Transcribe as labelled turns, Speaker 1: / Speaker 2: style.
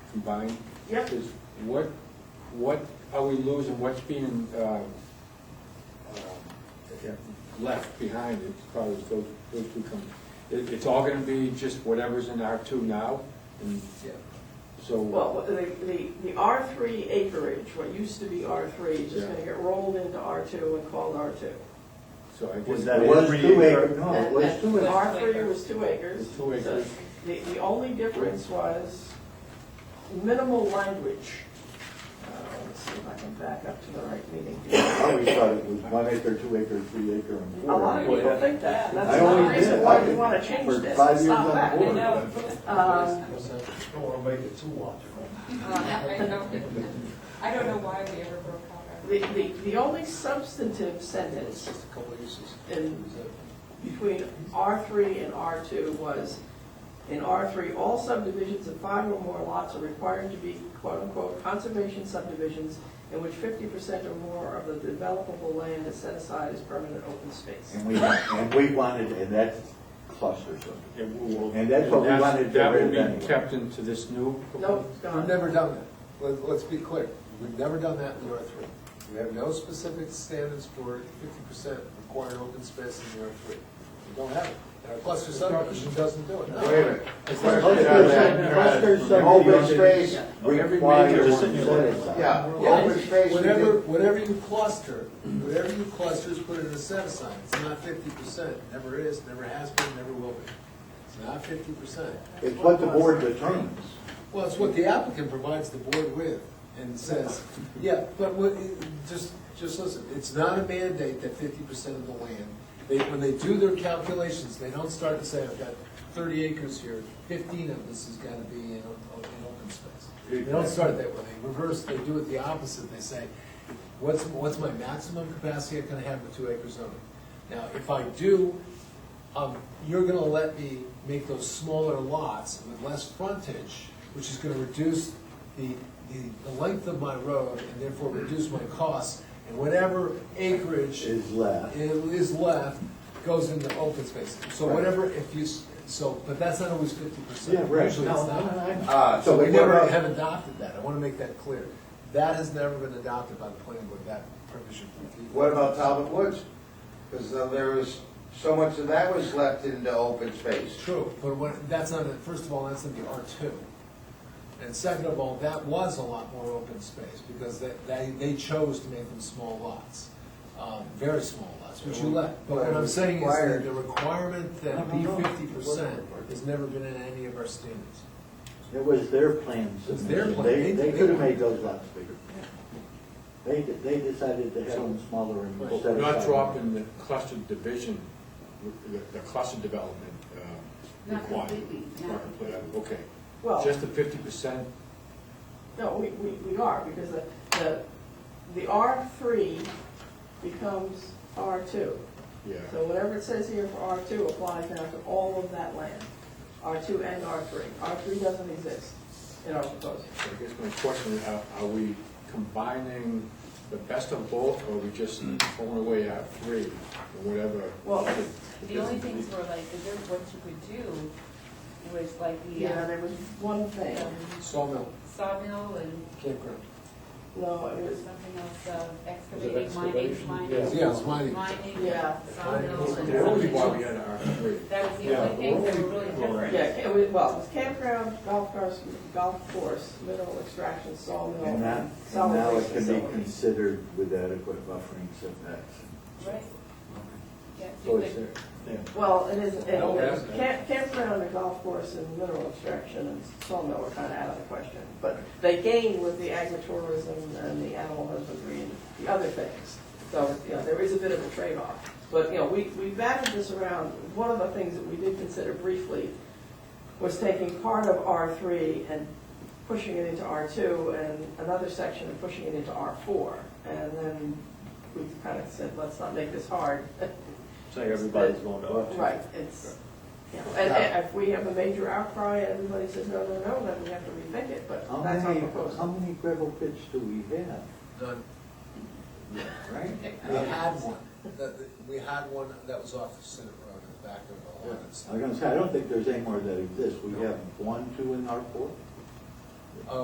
Speaker 1: combined?
Speaker 2: Yep.
Speaker 1: Is what, what are we losing, what's being uh, uh, left behind as far as those, those two come? It, it's all gonna be just whatever's in R two now, and
Speaker 2: Well,
Speaker 1: so,
Speaker 2: what- the, the, the R three acreage, what used to be R three, is just
Speaker 1: Yeah.
Speaker 2: gonna get rolled into R two and called R two.
Speaker 1: so I guess.
Speaker 3: Was that
Speaker 4: It was
Speaker 3: every
Speaker 4: two
Speaker 3: acre?
Speaker 4: acres. No, it was two acres.
Speaker 2: R three was two acres.
Speaker 1: It's two acres.
Speaker 2: So The, the only difference was minimal language. Uh, Let's see if I can back up to the right meeting.
Speaker 4: I always thought it was one acre, two acre, three acre, and
Speaker 2: A
Speaker 4: four.
Speaker 2: lot of
Speaker 4: acre.
Speaker 2: people think that, and
Speaker 4: I
Speaker 2: that's not the
Speaker 4: only
Speaker 2: reason
Speaker 4: did.
Speaker 2: why we wanna change
Speaker 4: For
Speaker 2: this.
Speaker 4: five
Speaker 2: Stop
Speaker 4: years on
Speaker 2: that.
Speaker 4: board.
Speaker 2: Um,
Speaker 3: Don't want to make it too logical.
Speaker 5: I don't, I don't know why we ever broke out our.
Speaker 2: The, the, the only substantive sentence in, between R three and R two was, in R three, all subdivisions of five or more lots are required to be quote-unquote conservation subdivisions in which fifty percent or more of the developable land is set aside as permanent open space.
Speaker 4: And we, and we wanted, and that's cluster zone.
Speaker 1: it will-
Speaker 4: And that's what we
Speaker 1: that's-
Speaker 4: wanted to
Speaker 1: That will
Speaker 4: raise anyway.
Speaker 1: be kept into this new.
Speaker 2: No, it's
Speaker 6: We've
Speaker 2: gone.
Speaker 6: never done that. Let- Let's be clear. We've never done that in the R three. We have no specific standards for fifty percent required open space in the R three. We don't have it. Our cluster subdivision doesn't do it.
Speaker 4: minute.
Speaker 6: It's not-
Speaker 4: Cluster zone, open space
Speaker 1: Every major
Speaker 4: requires
Speaker 1: one.
Speaker 4: set aside.
Speaker 3: Yeah.
Speaker 4: Open space. we
Speaker 6: Whatever,
Speaker 4: did-
Speaker 6: whatever you cluster, whatever you cluster is put in a set aside. It's not fifty percent. Never is, never has been, never will be. It's not fifty percent.
Speaker 4: It's what the board determines.
Speaker 6: Well, it's what the applicant provides the board with and says, yeah, but what, just, just listen, it's not a mandate that fifty percent of the land, they, when they do their calculations, they don't start to say, I've got thirty acres here, fifteen of this has gotta be in, o- in open space. They don't start that way, they reverse, they do it the opposite, they say, what's, what's my maximum capacity I can have with two acre zoning? Now, if I do, um, you're gonna let me make those smaller lots with less frontage, which is gonna reduce the, the, the length of my road and therefore reduce my costs, and whatever acreage
Speaker 4: Is left.
Speaker 6: it is left goes into open space. So
Speaker 4: Right.
Speaker 6: whatever, if you, s- so, but that's not always fifty percent. Usually it's
Speaker 4: No, no,
Speaker 6: not.
Speaker 4: I-
Speaker 6: Uh, So we
Speaker 4: what
Speaker 6: never
Speaker 4: about-
Speaker 6: have adopted that, I wanna make that clear. That has never been adopted by the planning board, that provision.
Speaker 7: What about Talbot Woods? Because there was, so much of that was left into open space.
Speaker 6: True, but what, that's not, first of all, that's in the R two. And second of all, that was a lot more open space, because they, they, they chose to make them small lots, um, very small lots, which you let. But what I'm saying is that the requirement that be fifty percent has never been in any of our standards.
Speaker 4: It was their plan
Speaker 6: was their
Speaker 4: submission.
Speaker 6: plan.
Speaker 4: They, they
Speaker 6: They-
Speaker 4: could have made those lots bigger. They, did- they decided to have them smaller and
Speaker 1: But
Speaker 4: set
Speaker 1: We're not
Speaker 4: aside.
Speaker 1: dropping the cluster division, the- the cluster development um,
Speaker 8: Not
Speaker 1: requirement.
Speaker 8: completely, no.
Speaker 1: Right, Okay,
Speaker 2: Well,
Speaker 1: just the fifty percent,
Speaker 2: no, we, we, we are, because the, the, the R three becomes R two.
Speaker 1: yeah.
Speaker 2: So whatever it says here for R two applies now to all of that land, R two and R three. R three doesn't exist in our proposal.
Speaker 1: So I guess my question is, are- are we combining the best of both, or are we just
Speaker 6: Mm.
Speaker 1: throwing away our three, or whatever?
Speaker 2: Well,
Speaker 5: The only things were like, is there what you could do was like the
Speaker 2: Yeah,
Speaker 5: uh,
Speaker 2: there was one thing,
Speaker 6: Sawmill,
Speaker 5: sawmill and
Speaker 6: campground.
Speaker 2: no, it was,
Speaker 5: something else, uh, excavating, mining, mining.
Speaker 6: Yeah, it's mining.
Speaker 5: Mining,
Speaker 2: Yeah.
Speaker 5: sawmill
Speaker 1: That
Speaker 5: and
Speaker 1: would be
Speaker 5: something
Speaker 1: why we
Speaker 5: else.
Speaker 1: had our three.
Speaker 5: That was the only things that were really different.
Speaker 2: yeah, it was, well, it was campground, golf course, golf course, mineral extraction, sawmill.
Speaker 4: And that, and
Speaker 2: solid
Speaker 4: now
Speaker 2: waste
Speaker 4: it can be
Speaker 2: facilities.
Speaker 4: considered with adequate buffering setbacks.
Speaker 5: Right. Yeah,
Speaker 4: So
Speaker 5: you
Speaker 4: it's
Speaker 5: could-
Speaker 4: there. Yeah.
Speaker 2: Well, it is, it-
Speaker 6: No, it
Speaker 2: it-
Speaker 6: hasn't.
Speaker 2: camp, campground and golf course and mineral extraction and sawmill are kind of out of the question. But they gain with the agritourism and the animal husbandry and the other things. So, you know, there is a bit of a trade-off. But, you know, we, we batted this around. One of the things that we did consider briefly was taking part of R three and pushing it into R two and another section and pushing it into R four. And then we kind of said, let's not make this hard.
Speaker 4: Saying
Speaker 2: everybody's
Speaker 4: going to R
Speaker 2: Right, it's, you know, and and if we have a major outcry, and everybody says, no, no, no, then we have to rethink it, but
Speaker 4: How
Speaker 2: that's our
Speaker 4: many, how
Speaker 2: proposal.
Speaker 4: many gravel pits do we have,
Speaker 6: None.
Speaker 4: right?
Speaker 6: We had one, That- that- we had one that was off the Senate Road in the back of a lot of
Speaker 4: Oh, I'm gonna say, I don't think there's any more that exist. We have one, two in our four.